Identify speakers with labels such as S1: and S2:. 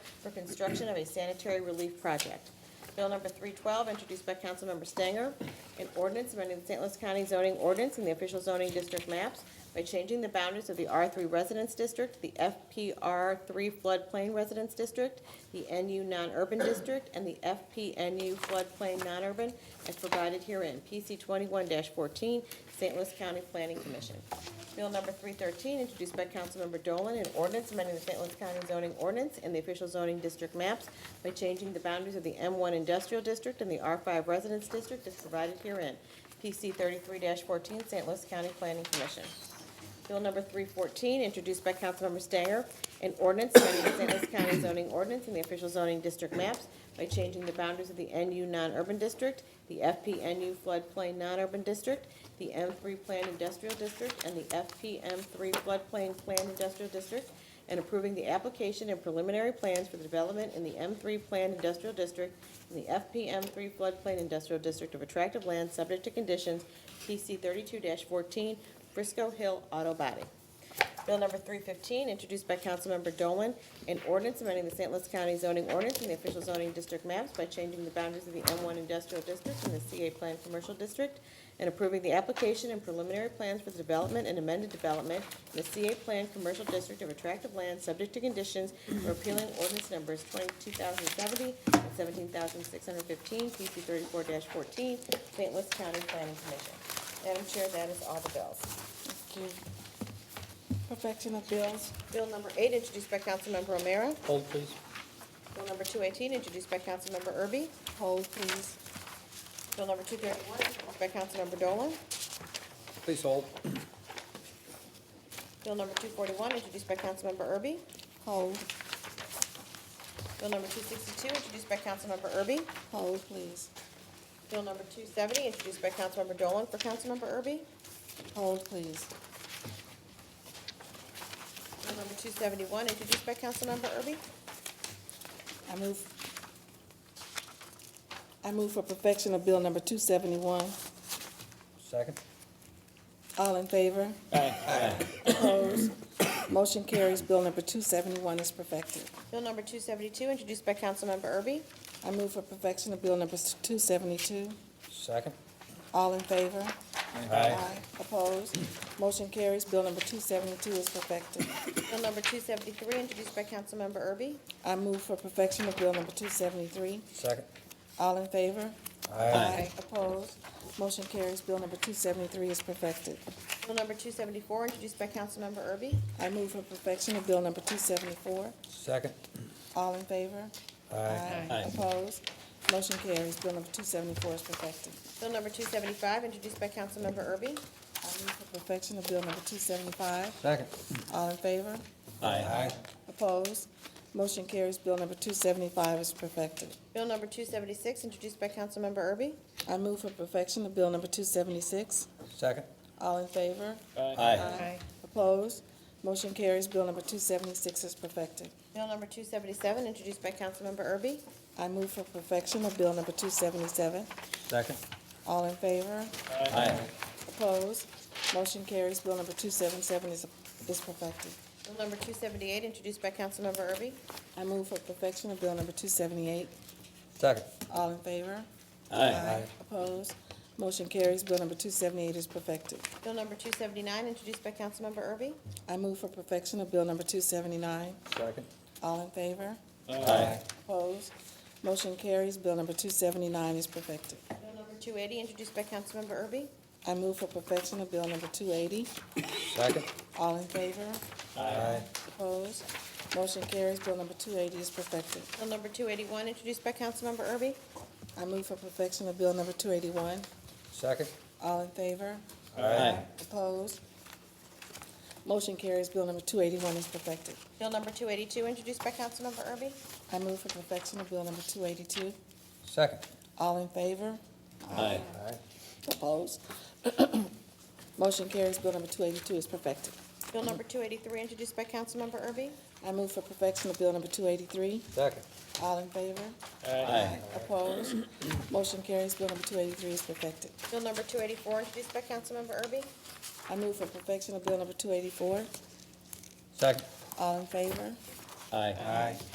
S1: for construction of a sanitary relief project. Bill number 312, introduced by Councilmember Stanger, an ordinance amending the St. Louis County zoning ordinance and the official zoning district maps by changing the boundaries of the R3 Residence District, the FPR3 Floodplain Residence District, the NU Non-Urban District, and the FPNU Floodplain Non-Urban, as provided herein. PC 21-14, St. Louis County Planning Commission. Bill number 313, introduced by Councilmember Dolan, an ordinance amending the St. Louis County zoning ordinance and the official zoning district maps by changing the boundaries of the M1 Industrial District and the R5 Residence District as provided herein. PC 33-14, St. Louis County Planning Commission. Bill number 314, introduced by Councilmember Stanger, an ordinance amending the St. Louis County zoning ordinance and the official zoning district maps by changing the boundaries of the NU non-urban district, the FPNU floodplain non-urban district, the M3 planned industrial district, and the FPM3 floodplain planned industrial district, and approving the application and preliminary plans for the development in the M3 planned industrial district and the FPM3 floodplain industrial district of attractive land subject to conditions PC 32-14 Frisco Hill Auto Body. Bill number 315, introduced by Councilmember Dolan, an ordinance amending the St. Louis County zoning ordinance and the official zoning district maps by changing the boundaries of the M1 industrial district and the CA Plan commercial district, and approving the application and preliminary plans for the development and amended development in the CA Plan commercial district of attractive land subject to conditions and repealing ordinance numbers 22,070 and 17,615, PC 34-14, St. Louis County Planning Commission. Madam Chair, that is all the bills.
S2: Thank you. Perfection of bills,
S1: Bill number eight, introduced by Councilmember O'Meara.
S3: Hold, please.
S1: Bill number two eighteen, introduced by Councilmember Erby.
S2: hold please.
S1: Bill number two thirty-one, introduced by Councilmember Dolan.
S3: Please hold.
S1: Bill number two forty-one, introduced by Councilmember Erby.
S2: Hold,
S1: Bill number two sixty-two, introduced by Councilmember Erby.
S2: hold please.
S1: Bill number two seventy, introduced by Councilmember Dolan for Councilmember Erby.
S2: Hold please.
S1: Bill number two seventy-one, introduced by Councilmember Erby.
S2: I move, I move for perfection of bill number two seventy-one.
S3: Second.
S2: All in favor? Opposed? Motion carries. Bill number two seventy-one is perfected.
S1: Bill number two seventy-two, introduced by Councilmember Erby.
S2: I move for perfection of bill number two seventy-two.
S3: Second.
S2: All in favor?
S3: Aye.
S2: Opposed? Motion carries. Bill number two seventy-two is perfected.
S1: Bill number two seventy-three, introduced by Councilmember Erby.
S2: I move for perfection of bill number two seventy-three.
S3: Second.
S2: All in favor?
S3: Aye.
S2: Opposed? Motion carries. Bill number two seventy-three is perfected.
S1: Bill number two seventy-four, introduced by Councilmember Erby.
S2: I move for perfection of bill number two seventy-four.
S3: Second.
S2: All in favor?
S3: Aye.
S2: Opposed? Motion carries. Bill number two seventy-four is perfected.
S1: Bill number two seventy-five, introduced by Councilmember Erby.
S2: I move for perfection of bill number two seventy-five.
S3: Second.
S2: All in favor?
S3: Aye.
S2: Opposed? Motion carries. Bill number two seventy-five is perfected.
S1: Bill number two seventy-six, introduced by Councilmember Erby.
S2: I move for perfection of bill number two seventy-six.
S3: Second.
S2: All in favor?
S3: Aye.
S2: Opposed? Motion carries. Bill number two seventy-six is perfected.
S1: Bill number two seventy-seven, introduced by Councilmember Erby.
S2: I move for perfection of bill number two seventy-seven.
S3: Second.
S2: All in favor?
S3: Aye.
S2: Opposed? Motion carries. Bill number two seventy-seven is, is perfected.
S1: Bill number two seventy-eight, introduced by Councilmember Erby.
S2: I move for perfection of bill number two seventy-eight.
S3: Second.
S2: All in favor?
S3: Aye.
S2: Opposed? Motion carries. Bill number two seventy-eight is perfected.
S1: Bill number two seventy-nine, introduced by Councilmember Erby.
S2: I move for perfection of bill number two seventy-nine.
S3: Second.
S2: All in favor?
S3: Aye.
S2: Opposed? Motion carries. Bill number two seventy-nine is perfected.
S1: Bill number two eighty, introduced by Councilmember Erby.
S2: I move for perfection of bill number two eighty.
S3: Second.
S2: All in favor?
S3: Aye.
S2: Opposed? Motion carries. Bill number two eighty is perfected.
S1: Bill number two eighty-one, introduced by Councilmember Erby.
S2: I move for perfection of bill number two eighty-one.
S3: Second.
S2: All in favor?
S3: Aye.
S2: Opposed? Motion carries. Bill number two eighty-one is perfected.
S1: Bill number two eighty-two, introduced by Councilmember Erby.
S2: I move for perfection of bill number two eighty-two.
S3: Second.
S2: All in favor?
S3: Aye.
S2: Opposed? Motion carries. Bill number two eighty-two is perfected.
S1: Bill number two eighty-three, introduced by Councilmember Erby.
S2: I move for perfection of bill number two eighty-three.
S3: Second.
S2: All in favor?
S3: Aye.
S2: Opposed? Motion carries. Bill number two eighty-three is perfected.
S1: Bill number two eighty-four, introduced by Councilmember Erby.
S2: I move for perfection of bill number two eighty-four.
S3: Second.
S2: All in favor?
S3: Aye. Aye.